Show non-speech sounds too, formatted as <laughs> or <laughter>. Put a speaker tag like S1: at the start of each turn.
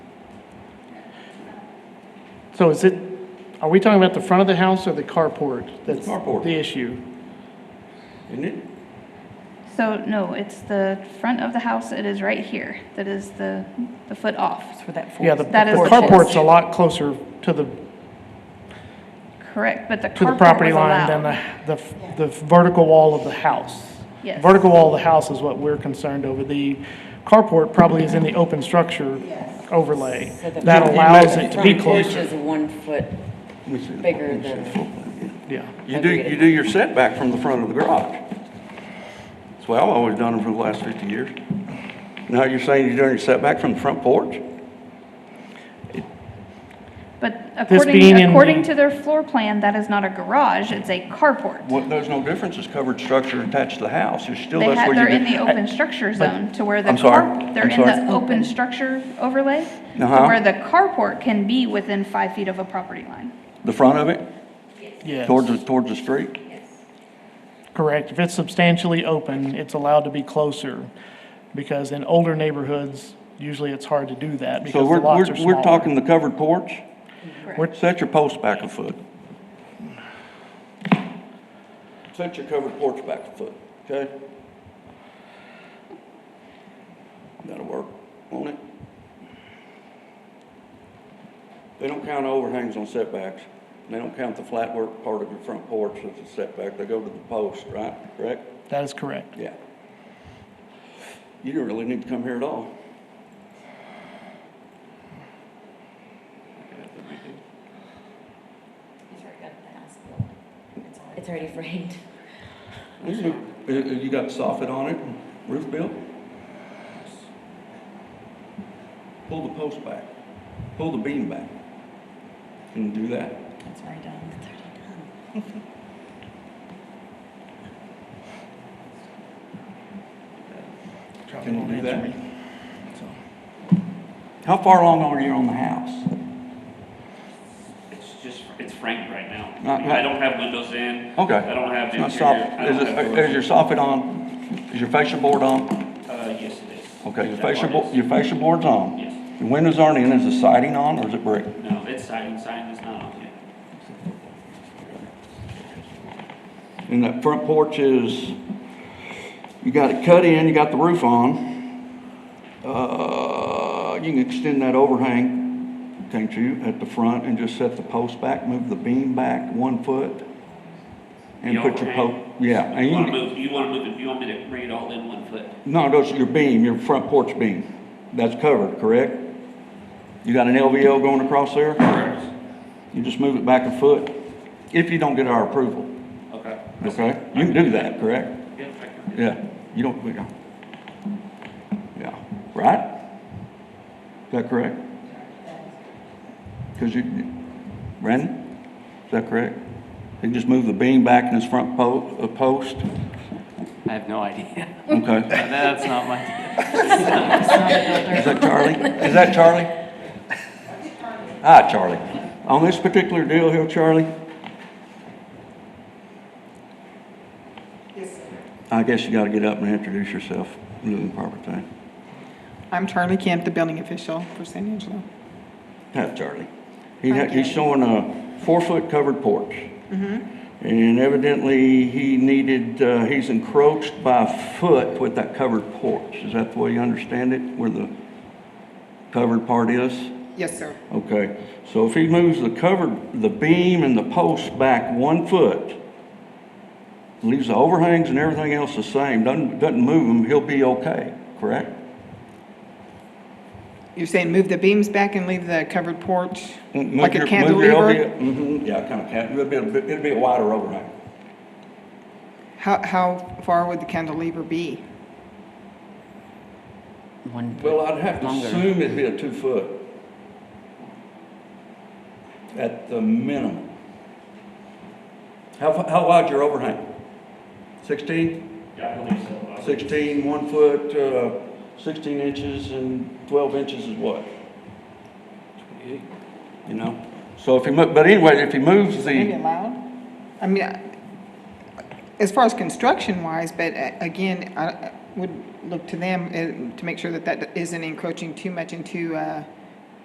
S1: So is it, are we talking about the front of the house or the carport? That's
S2: Carport.
S1: The issue.
S2: isn't it?
S3: So, no, it's the front of the house, it is right here, that is the, the foot off.
S4: That's where that
S1: Yeah, the the
S3: That is the
S1: carport's
S3: porch.
S1: a lot closer to the,
S3: Correct, but the
S1: to the
S3: carport
S1: property
S3: was
S1: line than
S3: allowed.
S1: the, the, the vertical wall of the house.
S3: Yes.
S1: Vertical wall of the house is what we're concerned over. The carport probably is in the open structure overlay.
S4: So the-
S1: That
S4: The
S1: allows it to be
S4: Front porch
S1: closer,
S4: is one foot bigger than,
S1: yeah.
S2: You do, you do your setback from the front of the garage. That's the way I've always done them for the last 50 years. Now you're saying you're doing your setback from the front porch?
S3: But according,
S1: being in
S3: according
S1: the-
S3: to their floor plan, that is not a garage, it's a carport.
S2: Well, there's no difference, it's covered structure attached to the house, you're still,
S3: They
S2: that's
S3: had,
S2: where
S3: they're
S2: you
S3: in the
S2: do.
S3: open structure zone to where the
S2: I'm sorry,
S3: car, they're
S2: I'm
S3: in the
S2: sorry.
S3: open structure overlay, to
S2: Uh-huh.
S3: where the carport can be within five feet of a property line.
S2: The front of it,
S1: Yes.
S2: towards, the- towards the street?
S1: Correct. If it's substantially open, it's allowed to be closer, because in older neighborhoods, usually it's hard to do that
S2: So
S1: because the
S2: we're,
S1: lots are
S2: we're,
S1: smaller.
S2: we're talking the covered porch?
S3: Correct.
S2: Set your post back a foot. Set your covered porch back a foot, okay? That'll work, won't it? They don't count overhangs on setbacks. They don't count the flat work part of your front porch as a setback. They go to the post, right? Correct?
S1: That is correct.
S2: Yeah. You don't really need to come here at all.
S4: it's already framed.
S2: You uh, uh, you got soffit on it, roof built? Pull the post back, pull the beam back. Can you do that?
S4: It's already done, it's already done.
S2: Can you do that? How far along are you on the house?
S5: It's just, it's framed right now.
S2: Not- not-
S5: I don't have windows in.
S2: Okay.
S5: I don't have
S2: It's not
S5: interior.
S2: soffit.
S5: I
S2: Is
S5: don't
S2: it-
S5: have
S2: uh,
S5: doors.
S2: is your soffit on? Is your fascia board on?
S5: Uh, yes, it is.
S2: Okay, your
S5: That
S2: fascia,
S5: part
S2: bo-
S5: is.
S2: your fascia board's on?
S5: Yes.
S2: Your windows aren't in, is the siding on or is it brick?
S5: No, it's siding, siding is not on yet.
S2: And that front porch is, you got it cut in, you got the roof on. Uh, you can extend that overhang, can't you, at the front and just set the post back, move the beam back one foot? And
S5: The
S2: put your
S5: overhang.
S2: post, yeah, and
S5: You
S2: you,
S5: wanna
S2: can-
S5: move, you wanna move it, you want me to bring it all in one foot?
S2: no, those are your beam, your front porch beam. That's covered, correct? You got an LVL going across there?
S5: Correct.
S2: You just move it back a foot, if you don't get our approval,
S5: Okay.
S2: okay? You can do that, correct?
S5: Yeah, I can.
S2: Yeah, you don't, yeah. Yeah, right? Is that correct? Because you, Brandon, is that correct? He just moved the beam back in his front po, uh, post?
S6: I have no idea. <laughs>
S2: Okay.
S6: That's not my,
S2: Is that Charlie? Is that Charlie? Hi, Charlie. On this particular deal here, Charlie? Yes, sir. I guess you gotta get up and introduce yourself, do the proper thing.
S7: I'm Charlie Camp, the building official for San Angelo.
S2: Not Charlie. He,
S7: Hi,
S2: ha- he's
S7: Gary.
S2: showing a four-foot covered porch.
S7: Mm-hmm.
S2: And evidently, he needed, uh, he's encroached by a foot with that covered porch. Is that the way you understand it, where the covered part is?
S7: Yes, sir.
S2: Okay, so if he moves the covered, the beam and the post back one foot, leaves the overhangs and everything else the same, doesn't, doesn't move them, he'll be okay, correct?
S7: You're saying move the beams back and leave the covered porch
S2: Move
S7: like
S2: your-
S7: a
S2: move your
S7: cantilever?
S2: LVL mhm, yeah, kind of cat, it'll be, a bit- it'll be a wider overhang.
S7: How, how far would the cantilever be?
S6: one,
S2: Well, I'd have to
S6: Longer.
S2: assume it'd be a two foot. At the minimum. How, fa- how wide your overhang? Sixteen?
S5: Yeah, I believe so. I-
S2: Sixteen, one foot, uh, sixteen inches and twelve inches is what? You know, so if he mo, but anyway, if he moves
S7: Maybe
S2: the,
S7: allowed? I mean, I- as far as construction wise, but uh, again, I I would look to them uh, to make sure that that isn't encroaching too much into uh,